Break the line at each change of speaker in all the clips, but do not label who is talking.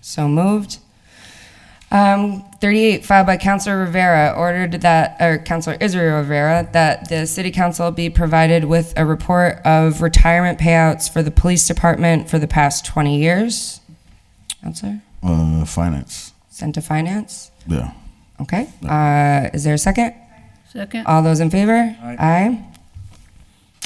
So moved. Um, 38, filed by Councilor Rivera, ordered that, or Councilor Israel Rivera, that the city council be provided with a report of retirement payouts for the police department for the past 20 years. Counselor,
Uh, finance.
sent to finance.
Yeah.
Okay. Uh, is there a second?
Second.
All those in favor? Aye.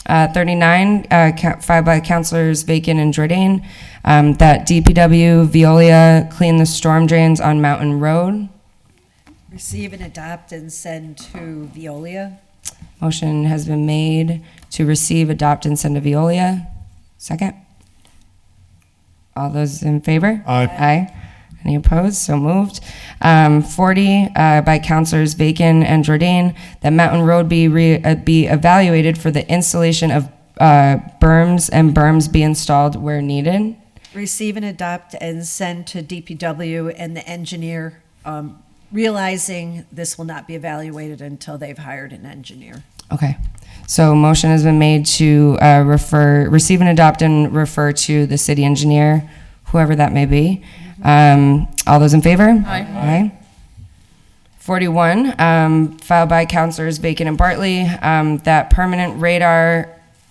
Uh, 39, uh, ca- filed by Councilors Bacon and Jordan, um, that DPW Veolia clean the storm drains on Mountain Road.
Receive and adopt and send to Veolia.
Motion has been made to receive, adopt, and send to Veolia. Second. All those in favor?
Aye.
Aye. Any opposed? So moved. Um, 40 uh, by Councilors Bacon and Jordan, that Mountain Road be, re- uh, be evaluated for the installation of uh, berms and berms be installed where needed.
Receive and adopt and send to DPW and the engineer, um, realizing this will not be evaluated until they've hired an engineer.
Okay. So motion has been made to uh, refer, receive and adopt and refer to the city engineer, whoever that may be. Um, All those in favor? Aye. Aye. 41, um, filed by Councilors Bacon and Bartley, um, that permanent radar,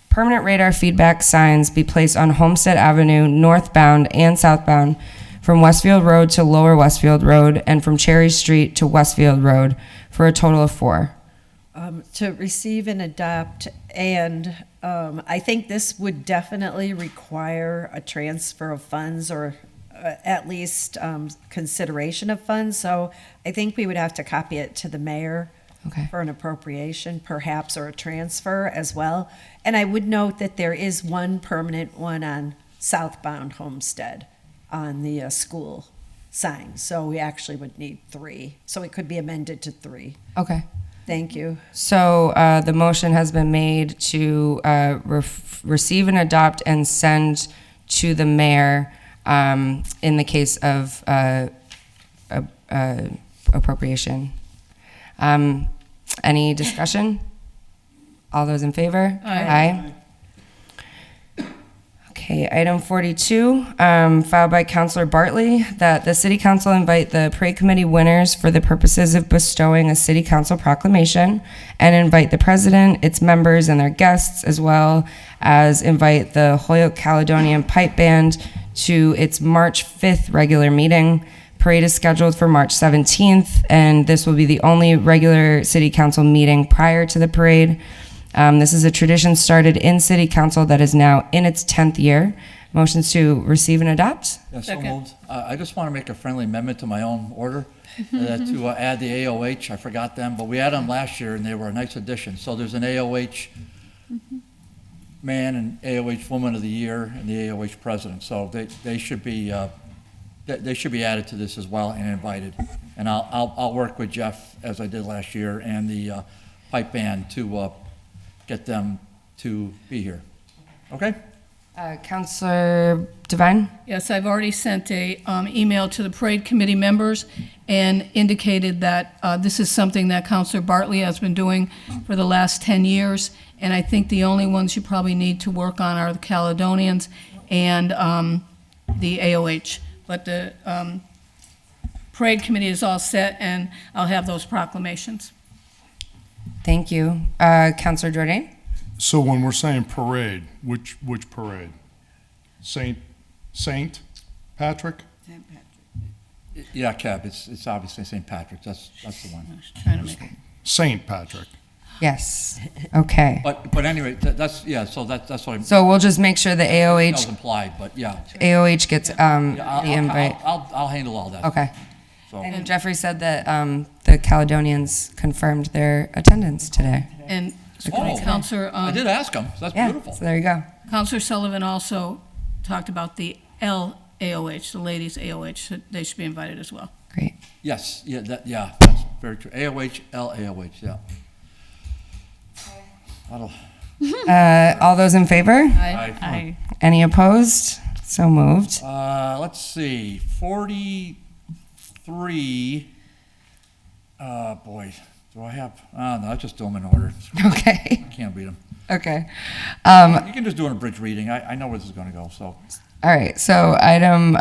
permanent radar feedback signs be placed on Homestead Avenue northbound and southbound from Westfield Road to Lower Westfield Road and from Cherry Street to Westfield Road for a total of four.
Um, to receive and adopt, and um, I think this would definitely require a transfer of funds or uh, at least um, consideration of funds. So I think we would have to copy it to the mayor.
Okay.
for an appropriation perhaps or a transfer as well. And I would note that there is one permanent one on southbound Homestead on the uh, school sign. So we actually would need three. So it could be amended to three.
Okay.
Thank you.
So uh, the motion has been made to uh, ref- receive and adopt and send to the mayor um, in the case of uh, a- a appropriation. Um, Any discussion? All those in favor? Aye. Okay, item 42, um, filed by Counselor Bartley, that the city council invite the parade committee winners for the purposes of bestowing a city council proclamation and invite the president, its members, and their guests, as well as invite the Holyoke Caledonian Pipe Band to its March 5th regular meeting. Parade is scheduled for March 17th, and this will be the only regular city council meeting prior to the parade. Um, this is a tradition started in city council that is now in its 10th year. Motions to receive and adopt?
Yeah, so moved. Uh, I just want to make a friendly amendment to my own order uh, to uh, add the AOH. I forgot them, but we had them last year and they were a nice addition. So there's an AOH man and AOH woman of the year and the AOH president. So they, they should be, uh, they, they should be added to this as well and invited. And I'll, I'll, I'll work with Jeff as I did last year and the uh, pipe band to uh, get them to be here. Okay?
Uh, Counselor Devine?
Yes, I've already sent a um, email to the parade committee members and indicated that uh, this is something that Counselor Bartley has been doing for the last 10 years, and I think the only ones you probably need to work on are the Caledonians and um, the AOH. But the um, parade committee is all set, and I'll have those proclamations.
Thank you. Uh, Counselor Jordan?
So when we're saying parade, which, which parade? Saint, Saint Patrick?
Yeah, Kev, it's, it's obviously St. Patrick's. That's, that's the one.
I was trying to make-
Saint Patrick.
Yes. Okay.
But, but anyway, tha- that's, yeah, so that, that's what I'm, that
So we'll just make sure the
was
AOH,
implied, but yeah.
AOH gets um,
Yeah, I'll-
the
I'll-
invite.
I'll, I'll- I'll handle all that.
Okay.
So-
And Jeffrey said that um, the Caledonians confirmed their attendance today.
And
Oh,
Counselor.
I
um,
did ask him. That's
Yeah,
beautiful.
so there you go.
Counselor Sullivan also talked about the LAOH, the ladies AOH, so they should be invited as well.
Great.
Yes, yeah, that, yeah, that's very true. AOH, LAOH, yeah. That'll-
Uh, All those in favor?
Aye.
Any opposed? So moved.
Uh, let's see, forty-three, uh, boy, do I have, ah, no, I just do them in order.
Okay,
Can't read them.
okay.
You can just do an abridged reading. I, I know where this is gonna go, so.
All right, so item